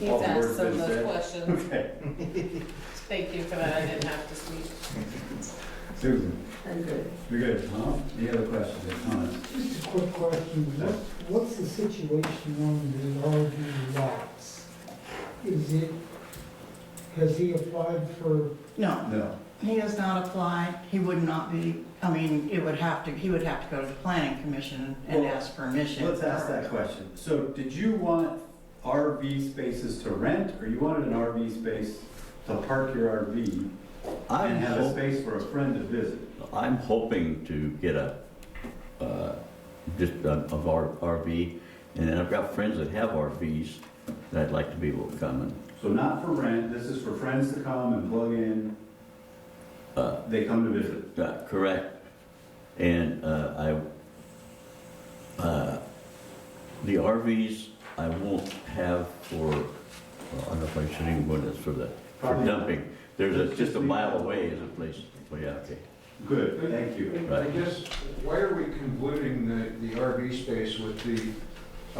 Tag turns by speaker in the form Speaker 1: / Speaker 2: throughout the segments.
Speaker 1: He's
Speaker 2: All the
Speaker 1: asked
Speaker 2: words
Speaker 1: some of
Speaker 2: been
Speaker 1: those
Speaker 2: said?
Speaker 1: questions.
Speaker 2: Okay,
Speaker 1: Thank you for that, I didn't have to speak.
Speaker 2: Susan,
Speaker 3: I'm good.
Speaker 2: you're good, huh? Any other questions or comments?
Speaker 4: Just a quick question, what, what's the situation on the RV lots? Is it, has he applied for,
Speaker 5: No,
Speaker 2: No,
Speaker 5: he has not applied. He would not be, I mean, it would have to, he would have to go to the planning commission and
Speaker 2: Well,
Speaker 5: ask permission.
Speaker 2: let's ask that question. So did you want RV spaces to rent, or you wanted an RV space to park your RV
Speaker 6: I'm,
Speaker 2: and have a
Speaker 6: hop-
Speaker 2: space for a friend to visit?
Speaker 6: I'm hoping to get a, uh, just a- of our RV, and then I've got friends that have RVs that I'd like to be able to come and,
Speaker 2: So not for rent, this is for friends to come and plug in,
Speaker 6: uh,
Speaker 2: they come to visit.
Speaker 6: uh, correct. And, uh, I, uh, the RVs I won't have for, well, I don't know if I should even go this for the, for
Speaker 2: Probably-
Speaker 6: dumping. There's a,
Speaker 2: Let's
Speaker 6: just
Speaker 2: just
Speaker 6: a
Speaker 2: leave
Speaker 6: mile
Speaker 2: that.
Speaker 6: away is a place, well, yeah, okay.
Speaker 2: Good, thank you.
Speaker 7: I guess, why are we convoluting the, the RV space with the,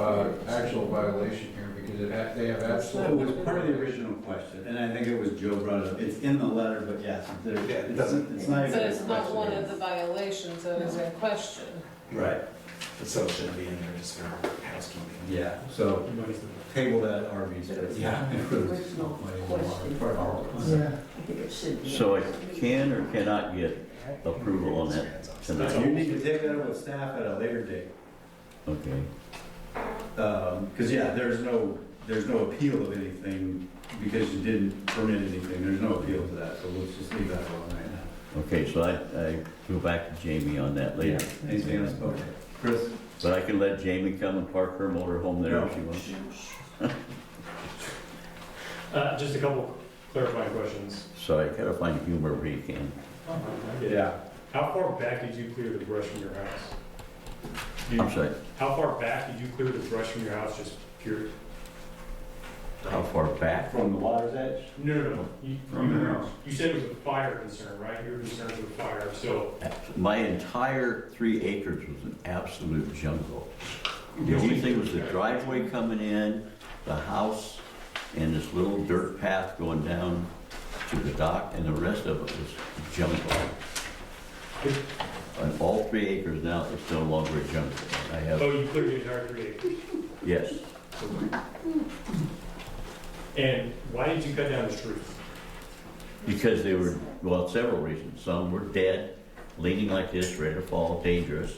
Speaker 7: uh, actual violation here? Because it, ha- they have
Speaker 2: That
Speaker 7: absolutely.
Speaker 2: was part of the original question, and I think it was Joe brought it up. It's in the letter, but yes, there, it's it's not even
Speaker 1: So
Speaker 2: a
Speaker 1: it's not one of
Speaker 2: question.
Speaker 1: the violations that is in question.
Speaker 2: Right,
Speaker 8: But so it shouldn't be in there, just for housekeeping.
Speaker 2: yeah, so table that RV space.
Speaker 8: Yeah.
Speaker 3: Original question.
Speaker 4: yeah,
Speaker 3: I think it should be.
Speaker 6: So I can or cannot get approval on that tonight?
Speaker 2: You need to take that up with staff at a later date,
Speaker 6: Okay.
Speaker 2: Um 'cause because yeah, there's no, there's no appeal of anything because you didn't permit anything, there's no appeal to that, so let's just leave that alone right now.
Speaker 6: Okay, so I, I go back to Jamie on that later. uh,
Speaker 2: Anything else, okay, Chris?
Speaker 6: But I can let Jamie come and park her motor home there if she wants.
Speaker 9: Uh, just a couple clarifying questions.
Speaker 6: So I gotta find humor where you can.
Speaker 7: Oh,
Speaker 2: Yeah.
Speaker 9: How far back did you clear the brush from your house? Do you-
Speaker 6: I'm sorry,
Speaker 9: How far back did you clear the brush from your house, just pure?
Speaker 6: how far back?
Speaker 2: From the water's edge?
Speaker 9: No, no, no. You,
Speaker 2: From your
Speaker 9: you,
Speaker 2: house.
Speaker 9: you said it was a fire concern, right? You were concerned with fire, so.
Speaker 6: My entire three acres was an absolute jungle. The only thing was the driveway coming in, the house, and this little dirt path going down to the dock, and the rest of it was jungle. On all three acres now, it's no longer a jungle. I have,
Speaker 9: Oh, you cleared the entire three acres.
Speaker 6: yes.
Speaker 9: And why did you cut down the trees?
Speaker 6: Because they were, well, several reasons. Some were dead, leaning like this, ready to fall, dangerous,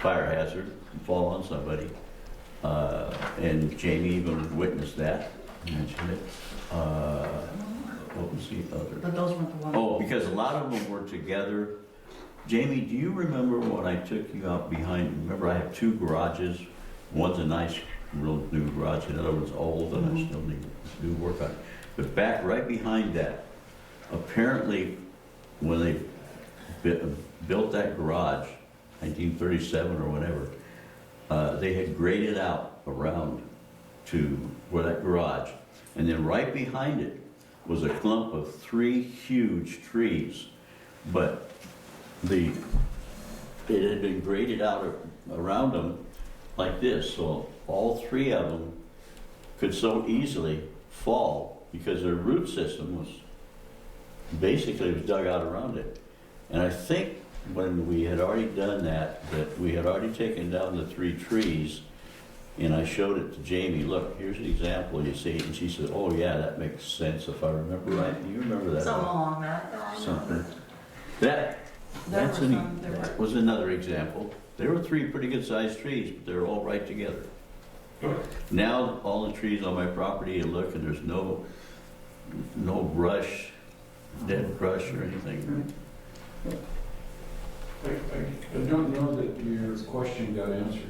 Speaker 6: fire hazard, fall on somebody. Uh, and Jamie even witnessed that, mentioned it. Uh, what was the other?
Speaker 5: But those weren't the ones.
Speaker 6: Oh, because a lot of them were together. Jamie, do you remember when I took you out behind, remember I have two garages? One's a nice, real new garage, and the other one's old, and I still need to do work on it. But back, right behind that, apparently, when they bu- built that garage, 1937 or whatever, uh, they had graded out around to where that garage, and then right behind it was a clump of three huge trees, but the, it had been graded out a- around them like this, so all three of them could so easily fall because their root system was, basically was dug out around it. And I think when we had already done that, that we had already taken down the three trees, and I showed it to Jamie, look, here's an example, you see, and she said, oh yeah, that makes sense if I remember right. Do you remember Oh, that?
Speaker 5: Something along that.
Speaker 6: Something. That,
Speaker 5: There
Speaker 6: that's
Speaker 5: were
Speaker 6: an, e-
Speaker 5: some- there
Speaker 6: that was another example. There were three pretty good sized trees, but they're all right together.
Speaker 9: Okay.
Speaker 6: Now, all the trees on my property, you look and there's no, no brush, dead brush or anything.
Speaker 7: I, I don't know that your question got answered.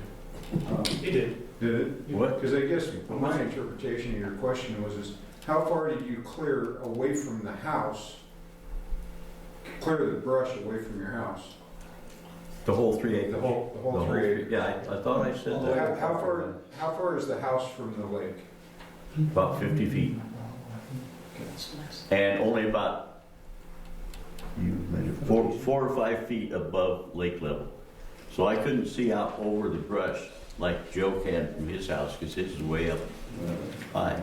Speaker 7: Um,
Speaker 9: It did.
Speaker 7: Did it?
Speaker 6: What?
Speaker 7: Because I guess my interpretation of your question was, is how far did you clear away from the house? Clear the brush away from your house?
Speaker 6: The whole three
Speaker 7: The whole, the whole three acres?
Speaker 6: Yeah, I, I thought I said
Speaker 7: How,
Speaker 6: that,
Speaker 7: how far, how far is the house from the lake?
Speaker 6: about fifty feet, and only about you measure, four, four or five feet above lake level. So I couldn't see out over
Speaker 7: Uh,
Speaker 6: the brush like Joe can from his house, because his is way up high.